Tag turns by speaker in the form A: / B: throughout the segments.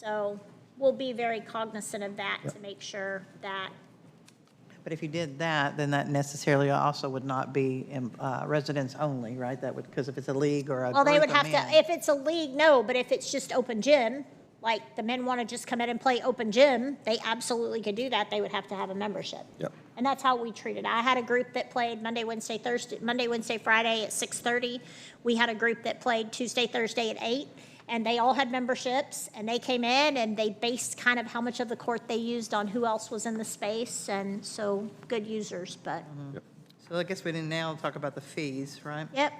A: So we'll be very cognizant of that to make sure that,
B: But if you did that, then that necessarily also would not be um, uh, residents only, right? That would, because if it's a league or a
A: well, they
B: group
A: would
B: of
A: have
B: men-
A: to, if it's a league, no, but if it's just open gym, like the men want to just come in and play open gym, they absolutely could do that. They would have to have a membership.
C: Yep.
A: And that's how we treat it. I had a group that played Monday, Wednesday, Thursday, Monday, Wednesday, Friday at 6:30. We had a group that played Tuesday, Thursday at 8, and they all had memberships, and they came in, and they based kind of how much of the court they used on who else was in the space, and so good users, but,
B: So I guess we didn't now talk about the fees, right?
A: yep.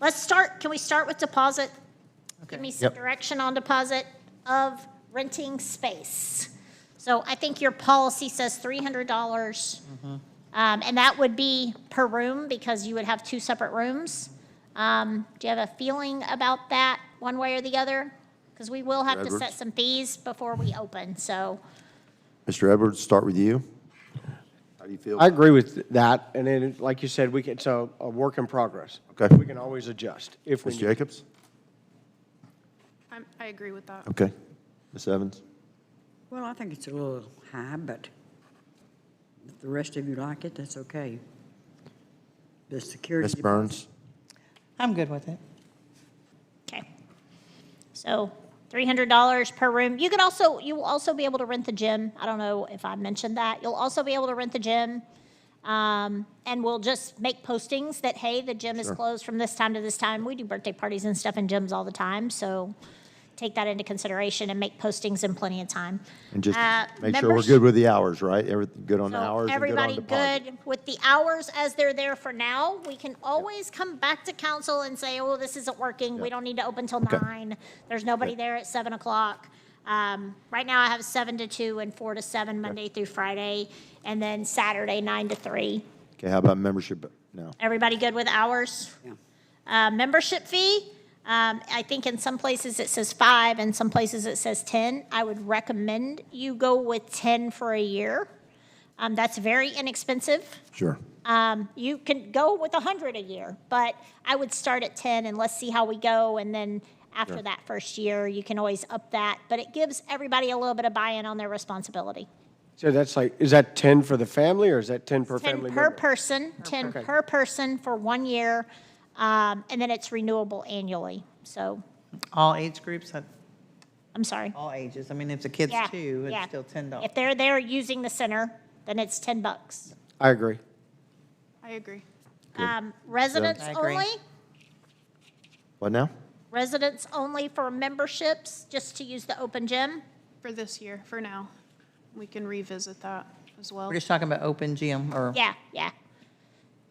A: Let's start, can we start with deposit? Give me
B: Okay.
A: some
C: Yep.
A: direction on deposit of renting space. So I think your policy says $300. Um, And that would be per room because you would have two separate rooms. Um, Do you have a feeling about that, one way or the other? Because we will have to
C: Edwards?
A: set some fees before we open, so.
C: Mr. Edwards, start with you. How do you feel?
D: I agree with that, and then, it- like you said, we can, it's a, a work in progress.
C: Okay.
D: We can always adjust if we
C: Ms.
D: need.
C: Jacobs?
E: I'm- I agree with that.
C: Okay. Ms. Evans?
F: Well, I think it's a little high, but if the rest of you like it, that's okay. The security.
C: Ms. Burns?
B: I'm good with it.
A: Okay. So three hundred dollars per room. You can also, you will also be able to rent the gym. I don't know if I mentioned that. You'll also be able to rent the gym. Um, and we'll just make postings that, hey, the gym is closed from this time to this time. We do birthday parties and stuff in gyms all the time, so take that into consideration and make postings in plenty of time.
C: And just
A: Uh,
C: make sure we're
A: members-
C: good with the hours, right? Everything, good on the
A: so
C: hours and good on
A: everybody
C: deposit?
A: good with the hours as they're there for now? We can always come back to council and say, oh, this isn't working. We don't need to open till
C: Okay.
A: nine. There's nobody there at seven o'clock. Um, Right now I have seven to two and four to seven, Monday through Friday, and then Saturday, nine to three.
C: Okay, how about membership now?
A: Everybody good with hours?
F: Yeah.
A: Uh, Membership fee, um, I think in some places it says five, in some places it says 10. I would recommend you go with 10 for a year. Um, That's very inexpensive.
C: Sure.
A: Um, you can go with a hundred a year, but I would start at ten and let's see how we go. And then after that first year, you can always up that, but it gives everybody a little bit of buy-in on their responsibility.
D: So that's like, is that ten for the family, or is that ten per
A: Ten
D: family
A: per
D: member?
A: person, ten per person for one year, um, and then it's renewable annually. So,
B: All age groups, uh,
A: I'm sorry.
B: all ages. I mean, if the kid's
A: Yeah,
B: two,
A: yeah.
B: it's still $10.
A: If they're there using the center, then it's ten bucks.
D: I agree.
E: I agree.
A: Um, residents
B: I agree.
A: only?
C: What now?
A: Residents only for memberships, just to use the open gym?
E: For this year, for now. We can revisit that as well.
B: We're just talking about open gym or,
A: Yeah, yeah.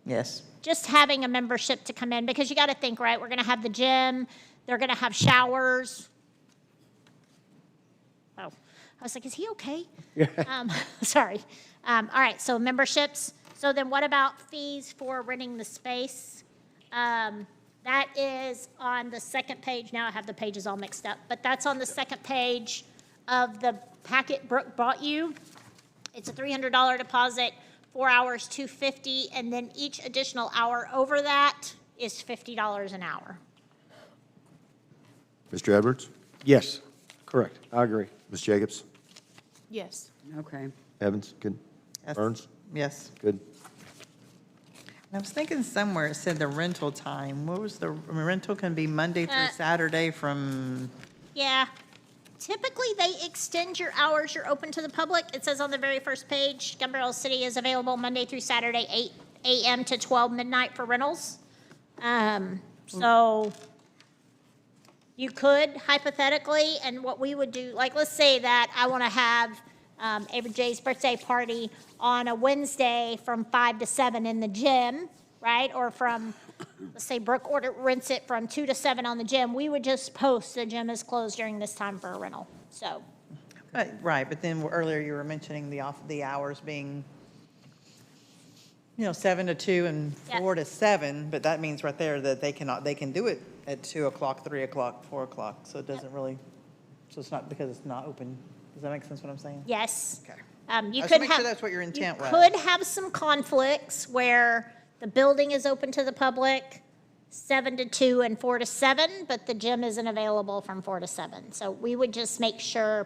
B: yes.
A: just having a membership to come in, because you got to think, right, we're going to have the gym, they're going to have showers. Oh, I was like, is he okay? Um, Sorry. Um, All right, so memberships. So then what about fees for renting the space? Um, That is on the second page, now I have the pages all mixed up, but that's on the second page of the packet Brooke brought you. It's a $300 deposit, four hours, 250, and then each additional hour over that is $50 an hour.
C: Mr. Edwards?
D: Yes, correct. I agree.
C: Ms. Jacobs?
E: Yes.
F: Okay.
C: Evans? Good?
B: Yes.
C: Burns?
B: Yes.
C: Good?
B: And I was thinking somewhere it said the rental time. What was the, I mean, rental can be Monday through
A: Uh,
B: Saturday from,
A: Yeah. Typically, they extend your hours, you're open to the public. It says on the very first page, Gun Barrel City is available Monday through Saturday, 8 AM to 12 midnight for rentals. Um, So you could hypothetically, and what we would do, like, let's say that I want to have um, Avery J's birthday party on a Wednesday from 5 to 7 in the gym, right? Or from, let's say Brooke order, rents it from 2 to 7 on the gym. We would just post the gym is closed during this time for a rental. So,
B: But- right, but then earlier you were mentioning the off, the hours being, you know, seven to two and
A: Yeah.
B: four to seven, but that means right there that they cannot, they can do it at two o'clock, three o'clock, four o'clock, so it doesn't really, so it's not because it's not open. Does that make sense what I'm saying?
A: yes.
B: Okay.
A: Um, you
B: I just
A: could
B: make sure
A: have-
B: that's what your intent was.
A: You could have some conflicts where the building is open to the public, seven to two and four to seven, but the gym isn't available from four to seven. So we would just make sure